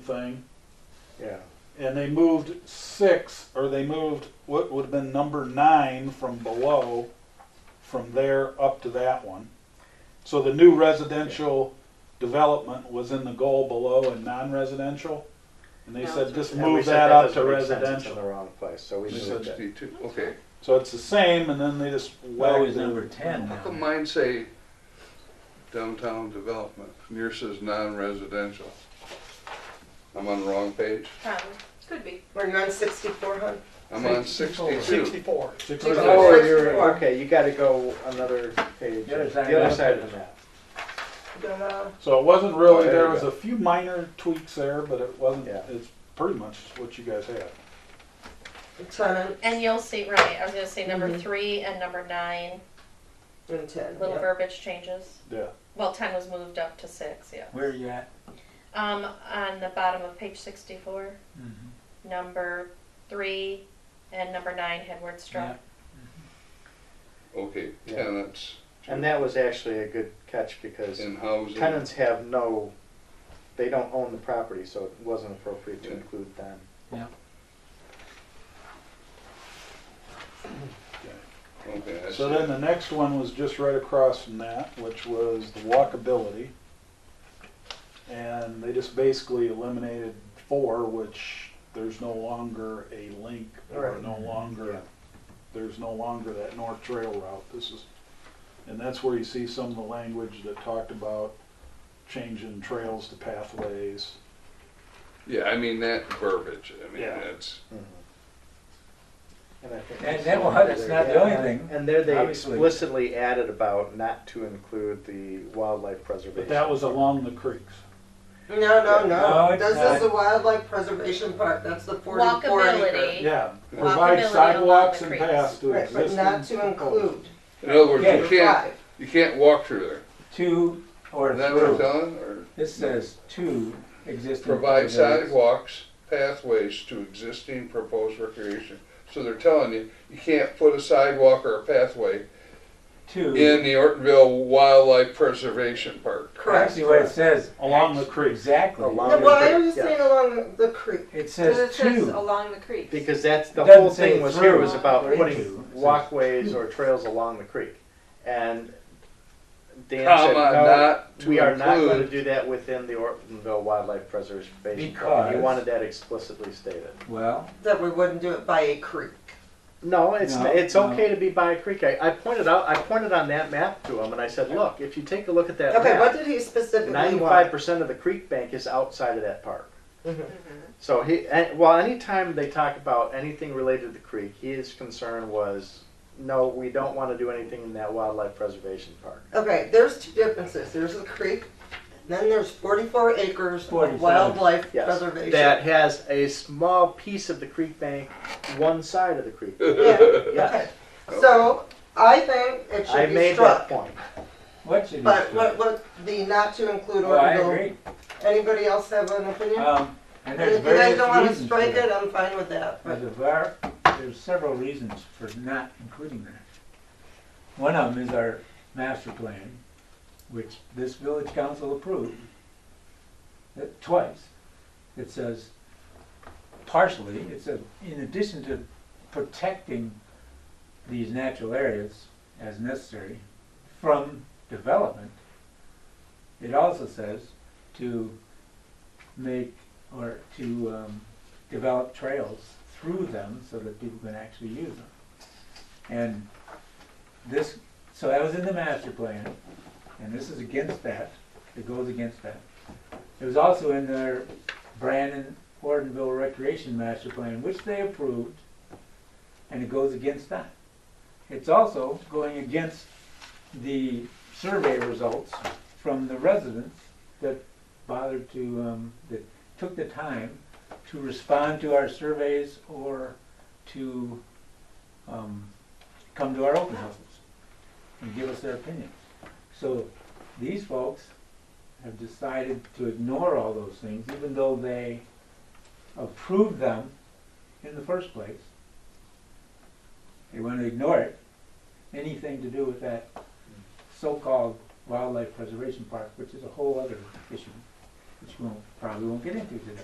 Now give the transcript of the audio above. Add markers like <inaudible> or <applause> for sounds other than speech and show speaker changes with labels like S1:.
S1: thing,
S2: yeah.
S1: and they moved six, or they moved what would have been number nine from below, from there up to that one. So the new residential development was in the goal below and non-residential, and they
S3: No,
S1: said
S3: it's-
S1: just
S2: And we
S1: move
S2: said
S1: that up to
S2: doesn't make sense, It's in the
S1: residential.
S2: wrong place, so we moved it.
S4: Sixty-two, okay.
S1: So it's the same, and then they just
S5: Well,
S1: whacked
S5: Oh, he's
S1: it.
S5: number ten
S4: How come
S5: now.
S4: mine say downtown development, and yours says non-residential? I'm on the wrong page.
S3: Probably, could be.
S6: We're on sixty-four hundred.
S4: I'm on sixty-two.
S7: Sixty-four.
S1: Sixty-
S2: Oh, you're,
S6: Sixty-four.
S2: okay, you gotta go another page,
S5: The other side
S2: the
S5: of
S2: other
S5: the
S2: side of
S5: map.
S2: the map.
S1: So it wasn't really,
S2: Oh, there
S1: there
S2: you
S1: was
S2: go.
S1: a few minor tweaks there, but it wasn't,
S2: Yeah.
S1: it's pretty much what you guys had.
S6: It's on an,
S3: And you'll see, right, I was gonna say number
S6: Mhm.
S3: three and number nine,
S6: and ten.
S3: little
S6: yeah.
S3: verbiage changes.
S1: Yeah.
S3: Well, ten was moved up to six, yeah.
S5: Where are you at?
S3: Um, on the bottom of page sixty-four,
S1: Mm-hmm.
S5: Mhm.
S3: number three and number nine had word struck.
S4: Okay,
S2: Yeah.
S4: tenants
S2: And that was actually a good catch because
S4: in housing.
S2: tenants have no, they don't own the property, so it wasn't appropriate to
S4: Yeah.
S2: include them.
S4: Okay, I
S1: So
S4: see.
S1: then the next one was just right across from that, which was the walkability. And they just basically eliminated four, which there's no longer a link or
S6: Right.
S1: no
S2: Yeah.
S1: longer, there's no longer that north trail route. This is, and that's where you see some of the language that talked about changing trails to pathways.
S4: Yeah, I mean, that verbiage, I mean,
S1: Yeah.
S4: that's,
S2: Mm-hmm. And I think
S5: And
S2: that's
S5: that
S2: the
S5: one,
S2: one
S5: it's
S2: where
S5: not
S2: they-
S5: the only thing,
S2: And there they
S5: obviously.
S2: explicitly added about not to include the wildlife preservation.
S1: But that was along the creeks.
S6: No, no,
S5: No,
S6: no.
S5: it's
S6: This
S5: not.
S6: is the wildlife preservation part. That's the forty-four acre.
S3: Walkability.
S1: Yeah,
S3: Walkability
S1: provide
S3: along
S1: sidewalks
S3: the
S1: and
S3: creeks.
S1: paths to
S6: Right, but
S1: existing.
S6: not to include.
S4: in other words,
S5: Yeah.
S4: you can't,
S6: Five.
S4: you can't walk through there.
S5: two or
S4: Is that what I'm
S5: through.
S4: telling, or
S5: This says two existing.
S4: provide
S5: facilities.
S4: sidewalks, pathways to existing proposed recreation? So they're telling you, you can't put a sidewalk or a pathway
S5: Two,
S4: in the Ortonville Wildlife Preservation Park.
S6: Correct.
S5: actually what it says.
S1: Along the creek.
S5: Exactly.
S2: Along-
S6: No, well, I was
S2: Yeah.
S6: saying along the creek.
S5: It
S8: Because
S5: says
S8: it says
S5: two.
S8: along the creek.
S2: Because that's, the
S5: It doesn't
S2: whole
S5: say
S2: thing was
S5: through.
S2: here was about
S5: Or into.
S2: putting walkways or trails along the creek. And Dan said,
S4: Comma,
S2: no,
S4: not to
S2: we are not going to
S4: include,
S2: do that within the Ortonville Wildlife Preservation Park. He
S5: Because-
S2: wanted that explicitly stated.
S5: Well,
S6: That we wouldn't do it by a creek.
S2: No, it's,
S5: No,
S2: it's
S5: no.
S2: okay to be by a creek. I, I pointed out, I pointed on that map to him and I said, look, if you take a look at that
S6: Okay,
S2: map,
S6: what did he specifically
S2: Ninety-five
S6: want?
S2: percent of the creek bank is outside of that park.
S6: Mhm.
S2: So he, eh, well, anytime they talk about anything related to the creek, his concern was, no, we don't want to do anything in that wildlife preservation park.
S6: Okay, there's two differences. There's the creek, then there's forty-four acres of
S5: 47.
S6: wildlife
S2: Yes,
S6: preservation.
S2: that has a small piece of the creek bank, one side of the
S6: <laughs>
S2: creek. bank.
S6: Yeah,
S2: Yes,
S6: okay. So, I think it
S2: I
S6: should be
S2: made that
S6: struck.
S2: point.
S5: what should
S6: But
S5: it
S6: what, what, the not to include
S5: Well, Oh, I
S6: Ortonville,
S5: agree.
S6: anybody else have an opinion?
S5: Um, and
S6: If
S5: there's
S6: you guys
S5: various
S6: don't wanna
S5: reasons for
S6: strike
S5: that.
S6: it, I'm fine with that, but
S5: There's a var, there's several reasons for not including that. One of them is our master plan, which this village council approved uh, twice. It says partially, it says in addition to protecting these natural areas as necessary from development, it also says to make or to um, develop trails through them so that people can actually use them. And this, so that was in the master plan, and this is against that, it goes against that. It was also in their Brandon Ortonville Recreation Master Plan, which they approved, and it goes against that. It's also going against the survey results from the residents that bothered to, um, that took the time to respond to our surveys or to um, come to our open houses and give us their opinions. So these folks have decided to ignore all those things, even though they approved them in the first place. They want to ignore it, anything to do with that so-called wildlife preservation park, which is a whole other issue. which we'll, probably won't get into today.